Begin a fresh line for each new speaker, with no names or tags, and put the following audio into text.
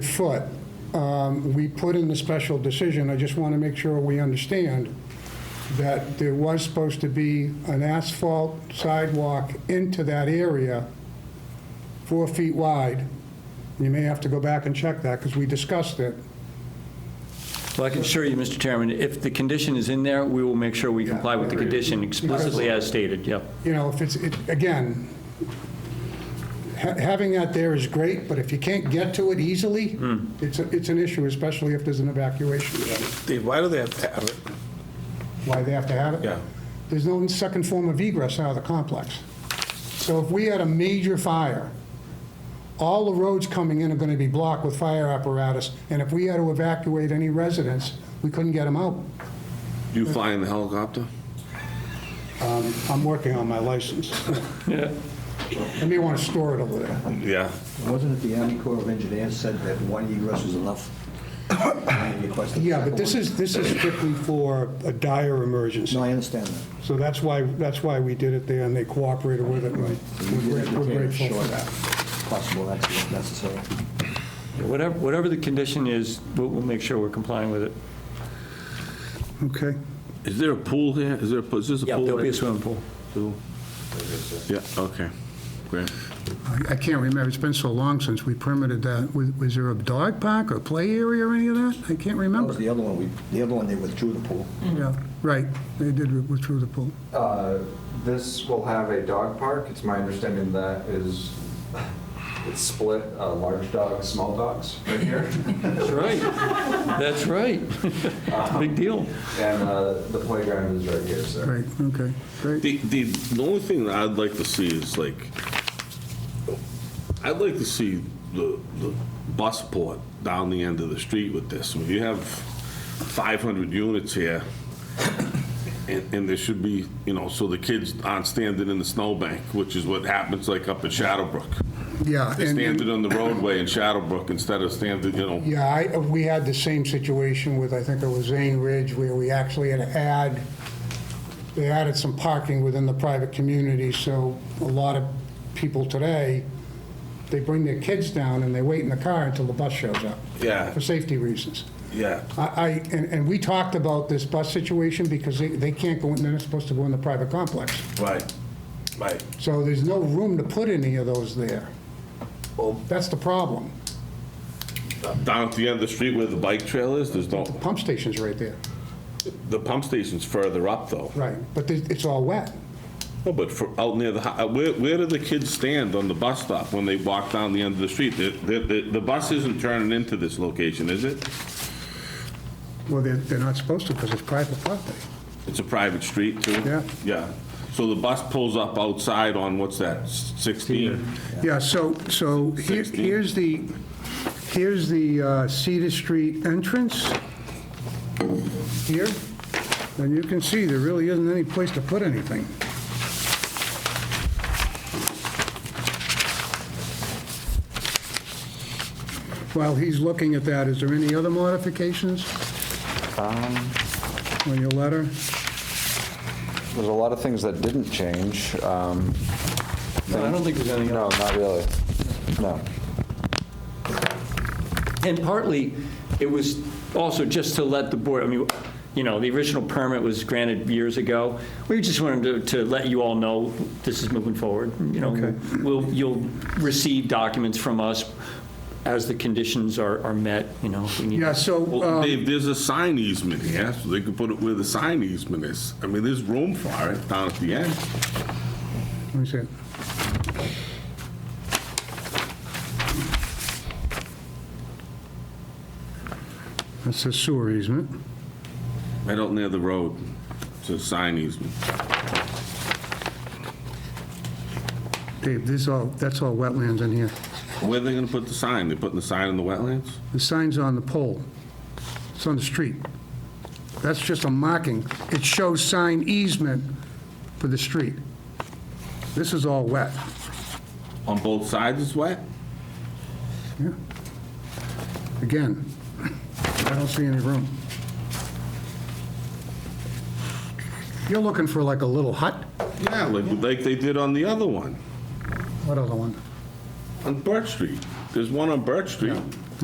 foot, um, we put in the special decision, I just want to make sure we understand that there was supposed to be an asphalt sidewalk into that area, four feet wide. You may have to go back and check that, because we discussed it.
Well, I can assure you, Mr. Chairman, if the condition is in there, we will make sure we comply with the condition explicitly as stated, yeah.
you know, if it's, it- again, ha- having that there is great, but if you can't get to it easily, it's, a- it's an issue, especially if there's an evacuation.
Steve, why do they have to have it?
Why they have to have it?
Yeah.
There's no second form of egress out of the complex. So if we had a major fire, all the roads coming in are going to be blocked with fire apparatus, and if we had to evacuate any residents, we couldn't get them out.
Do you fly in the helicopter?
I'm working on my license. I may want to store it over there.
Yeah.
Wasn't it the Army Corps of Engineers said that one egress was enough? And they requested a
Yeah, but this
second
is, this is strictly for a dire
one? No,
emergency.
I understand that.
So that's why, that's why we did it there, and they cooperated with it.
We
We're
did
gra-
indicate
we're grateful
sure
for that.
Possible accident necessary.
Whatever, whatever the condition is, we'll, we'll make sure we're complying with it.
Okay.
Is there a pool here? Is there, a pool? is this a
Yeah,
pool?
there'll be a
right?
swimming pool.
Pool? Yeah, okay, great.
I- I can't remember, it's been so long since we permitted that. Was was there a dog park or play area or any of that? I can't
That was
remember.
the other one, we, the other one, they withdrew the pool.
Yeah, right, they did withdrew the pool.
Uh, This will have a dog park. It's my understanding that is, it's split, uh, large dogs, small dogs right here.
That's right. That's right. Big deal.
And uh, the playground is right here, sir.
Right, okay, great.
The, the, the only thing that I'd like to see is like, I'd like to see the, the bus port down the end of the street with this. When you have 500 units here, and, and there should be, you know, so the kids aren't standing in the snowbank, which is what happens like up at Shadowbrook.
Yeah,
They
and- and,
standing on the roadway in Shadowbrook instead of standing, you know,
yeah, I, we had the same situation with, I think it was Zane Ridge, where we actually had to add, they added some parking within the private community, so a lot of people today, they bring their kids down and they wait in the car until the bus shows up.
Yeah.
For safety reasons.
yeah.
I, I- and, and we talked about this bus situation because they, they can't go, in they're not supposed to go in the private complex.
Right, right.
So there's no room to put any of those there. That's the problem.
Down at the end of the street where the bike trail is, there's no,
Pump station's right there,
the pump station's further up though.
right, but there's- it's all wet.
No, but for, out near the, hi- uh, where, where do the kids stand on the bus stop when they walk down the end of the street? The, the, the- the bus isn't turning into this location, is it?
Well, they're, they're not supposed to because it's private property.
It's a private street too?
Yeah.
Yeah. So the bus pulls up outside on, what's that, 16?
Yeah, so, so here-
Sixteen.
here's the, here's the uh, Cedar Street entrance here, and you can see there really isn't any place to put anything. While he's looking at that, is there any other modifications
Um.
on your letter?
There's a lot of things that didn't change. Um,
I don't think there's anything
No, not really. No.
And partly, it was also just to let the board, I mean, you know, the original permit was granted years ago. We just wanted to, to let you all know this is moving forward, you know. We'll, you'll receive documents from us as the conditions are, are met, you know. if we need-
Yeah, so,
Well,
um,
Dave, there's a sign easement here, so they could put it where the sign easement is. I mean, there's room for it down at the end.
let me see it. That's the sewer easement.
Right out near the road, it's a sign easement.
Dave, this all, that's all wetlands in here.
Where are they gonna put the sign? They putting the sign in the wetlands?
The sign's on the pole. It's on the street. That's just a marking. It shows sign easement for the street. This is all wet.
On both sides is wet?
Again, I don't see any room. You're looking for like a little hut?
Yeah, like, like they did on the other one,
What other one?
on Birch Street. There's one on Birch Street.